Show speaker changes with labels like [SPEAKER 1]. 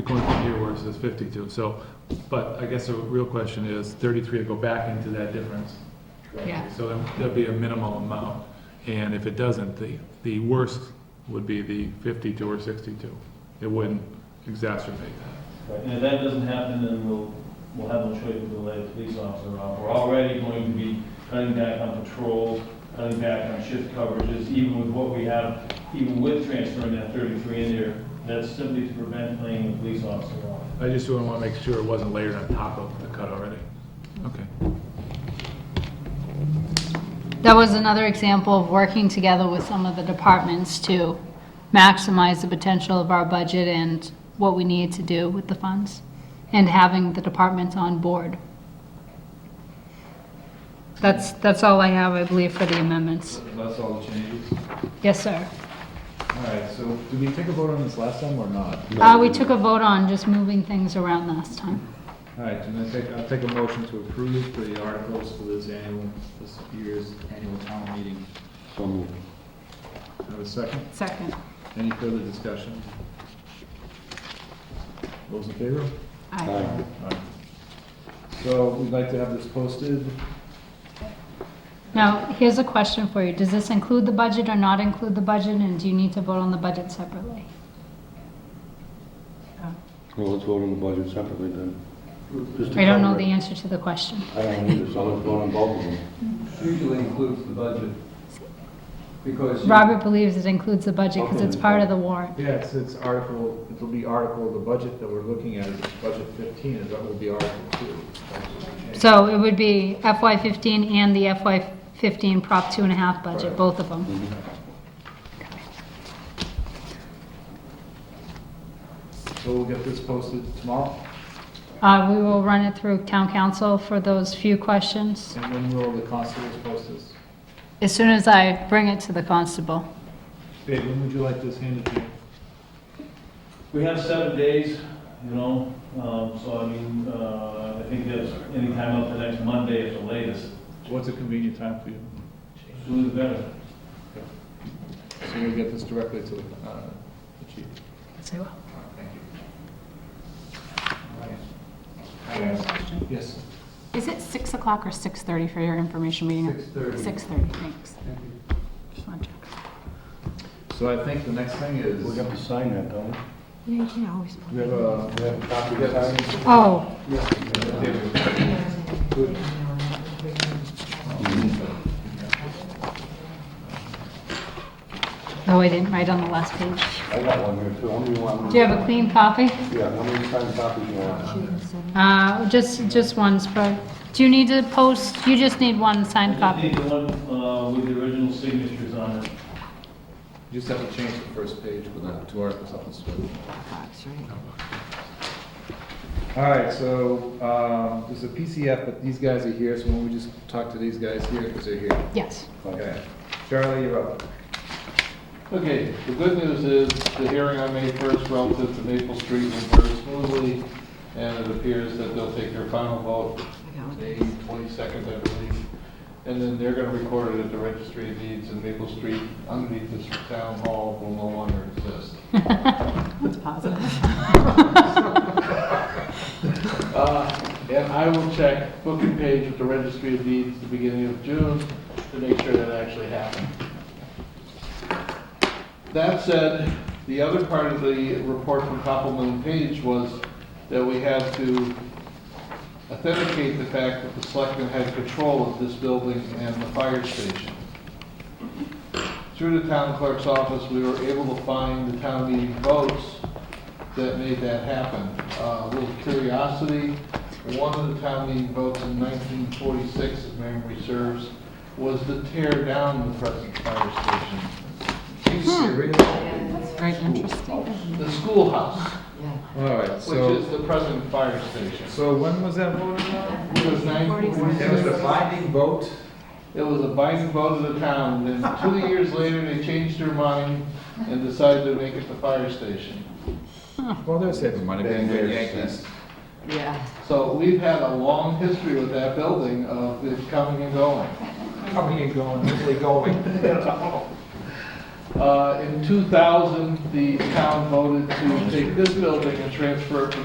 [SPEAKER 1] Going from here where it says 52, so, but I guess the real question is, 33 will go back into that difference.
[SPEAKER 2] Yeah.
[SPEAKER 1] So there- there'll be a minimal amount, and if it doesn't, the, the worst would be the 52 or 62. It wouldn't exacerbate that.
[SPEAKER 3] Right, And if that doesn't happen, then we'll, we'll have no choice but to let the police officer out. We're already going to be cutting back on patrols, cutting back on shift coverages, even with what we have, even with transferring that thirty-three in there. That's simply to prevent laying the police officer off.
[SPEAKER 1] I just want to make sure it wasn't layered on top of the cut already. Okay.
[SPEAKER 2] That was another example of working together with some of the departments to maximize the potential of our budget and what we need to do with the funds, and having the departments on board. That's, that's all I have, I believe, for the amendments.
[SPEAKER 4] That's all the changes.
[SPEAKER 2] Yes, sir.
[SPEAKER 4] All right, so did we take a vote on this last time or not?
[SPEAKER 2] Uh, we took a vote on just moving things around last time.
[SPEAKER 4] All right, then I take, I'll take a motion to approve the articles for this annual, this year's annual town meeting.
[SPEAKER 5] So moved.
[SPEAKER 4] Have a second?
[SPEAKER 2] Second.
[SPEAKER 4] Any further discussion? Those in favor?
[SPEAKER 5] Aye.
[SPEAKER 4] Aye. So we'd like to have this posted.
[SPEAKER 2] Now, here's a question for you. Does this include the budget or not include the budget, and do you need to vote on the budget separately?
[SPEAKER 5] Well, let's vote on the budget separately then. Just to
[SPEAKER 2] I don't know
[SPEAKER 5] cover
[SPEAKER 2] the
[SPEAKER 5] it.
[SPEAKER 2] answer to the question.
[SPEAKER 5] I don't either, so let's vote on both of them.
[SPEAKER 6] usually includes the budget. Because. you-
[SPEAKER 2] Robert believes it includes the budget because it's part of the warrant.
[SPEAKER 4] Yeah, it's, it's article, it'll be article, the budget that we're looking at is budget fifteen, is that will be article two. That's what we changed.
[SPEAKER 2] So it would be FY fifteen and the FY fifteen Prop two and a half budget,
[SPEAKER 4] Right.
[SPEAKER 2] both of them.
[SPEAKER 4] So we'll get this posted tomorrow,
[SPEAKER 2] Uh, we will run it through town council for those few questions
[SPEAKER 4] and when will the constables post this?
[SPEAKER 2] as soon as I bring it to the constable.
[SPEAKER 4] Babe, when would you like this handed to you?
[SPEAKER 3] We have seven days, you know, um, so I mean, uh, I think that's any time up to next Monday at the latest.
[SPEAKER 4] What's a convenient time for you?
[SPEAKER 3] Sooner the better.
[SPEAKER 4] So you'll get this directly to the, uh, the chief.
[SPEAKER 2] Say what?
[SPEAKER 4] All right, Thank you. All right. Yes.
[SPEAKER 7] Is it 6 o'clock or 6:30 for your information meeting?
[SPEAKER 6] 6:30.
[SPEAKER 7] 6:30, thanks. Just want to check.
[SPEAKER 4] So I think the next thing is,
[SPEAKER 5] We have to sign that, don't we?
[SPEAKER 7] Yeah, you can always.
[SPEAKER 4] we have a,
[SPEAKER 6] We have a copy of that.
[SPEAKER 2] Oh, no, I didn't write on the last page.
[SPEAKER 5] I got one here too. How many you want?
[SPEAKER 2] Do you have a clean copy?
[SPEAKER 5] Yeah, how many signed copies you want?
[SPEAKER 2] Uh, just, just one's pro, do you need to post, you just need one
[SPEAKER 3] I
[SPEAKER 2] signed
[SPEAKER 3] just
[SPEAKER 2] copy?
[SPEAKER 3] need the one uh, with the original signatures on it.
[SPEAKER 4] you just have to change the first page with the two articles up and split. All right, so, um, there's a PCF, but these guys are here, so why don't we just talk to these guys here, because they're here.
[SPEAKER 2] Yes.
[SPEAKER 4] Okay. Charlie, you're up.
[SPEAKER 8] Okay, the good news is the hearing on May 1st relative to Maple Street went very smoothly, and it appears that they'll take their final vote May 22nd, I believe, and then they're going to record it at the registry of deeds, and Maple Street underneath this town hall will no longer exist.
[SPEAKER 7] That's positive.
[SPEAKER 8] Uh, And I will check booking page with the registry of deeds the beginning of June to make sure that actually happened. That said, the other part of the report from Copeland Page was that we had to authenticate the fact that the selectmen had control of this building and the fire station. Through the town clerk's office, we were able to find the town meeting votes that made that happen. Uh, A little curiosity, one of the town meeting votes in 1946, if memory serves, was to tear down the present fire station
[SPEAKER 4] You serious?
[SPEAKER 7] It's Very interesting.
[SPEAKER 8] the schoolhouse,
[SPEAKER 4] All right,
[SPEAKER 8] which
[SPEAKER 4] so,
[SPEAKER 8] is the present fire station.
[SPEAKER 4] so when was that voted on?
[SPEAKER 8] It was nine,
[SPEAKER 4] That was the binding vote?
[SPEAKER 8] it was a binding vote of the town, and then two years later, they changed their mind and decided to make it the fire station.
[SPEAKER 4] Well, there's saving money,
[SPEAKER 8] Been
[SPEAKER 4] being good
[SPEAKER 8] there
[SPEAKER 4] Yankees.
[SPEAKER 7] Yeah.
[SPEAKER 8] So we've had a long history with that building of it coming and going.
[SPEAKER 4] Coming and going, really going.
[SPEAKER 8] Uh,
[SPEAKER 1] Uh, In 2000, the town voted to take this building and transfer it from